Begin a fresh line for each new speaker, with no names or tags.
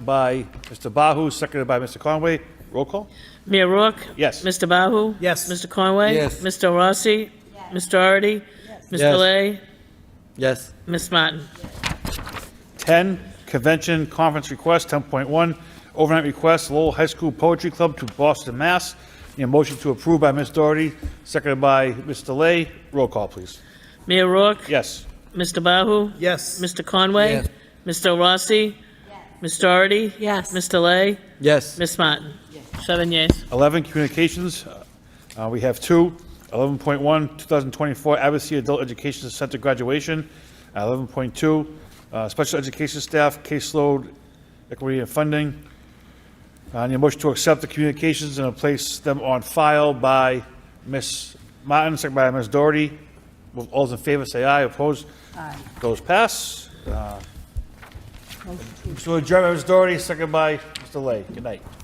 by Mr. Bahu, seconded by Mr. Conway. Roll call?
Mayor Rourke?
Yes.
Mr. Bahu?
Yes.
Mr. Conway?
Yes.
Mr. Rossi? Ms. Doherty? Mr.
Yes.
Lay?
Yes.
Ms. Martin?
10, convention conference request, 10.1, overnight request, Lowell High School Poetry Club to Boston, Mass. Need a motion to approve by Ms. Doherty, seconded by Mr. Lay. Roll call, please.
Mayor Rourke?
Yes.
Mr. Bahu?
Yes.
Mr. Conway?
Yes.
Mr. Rossi? Ms. Doherty?
Yes.
Mr. Lay?
Yes.
Ms. Martin? Seven yeas.
11, communications. Uh, We have two. 11.1, 2024 Abbasia Adult Education Center graduation. 11.2, uh, special education staff caseload equity and funding. I need a motion to accept the communications and place them on file by Ms. Martin, second by Ms. Doherty. All those in favor, say aye. Opposed? Aye. Those pass. Uh, So adjourned by Ms. Doherty, second by Mr. Lay. Good night.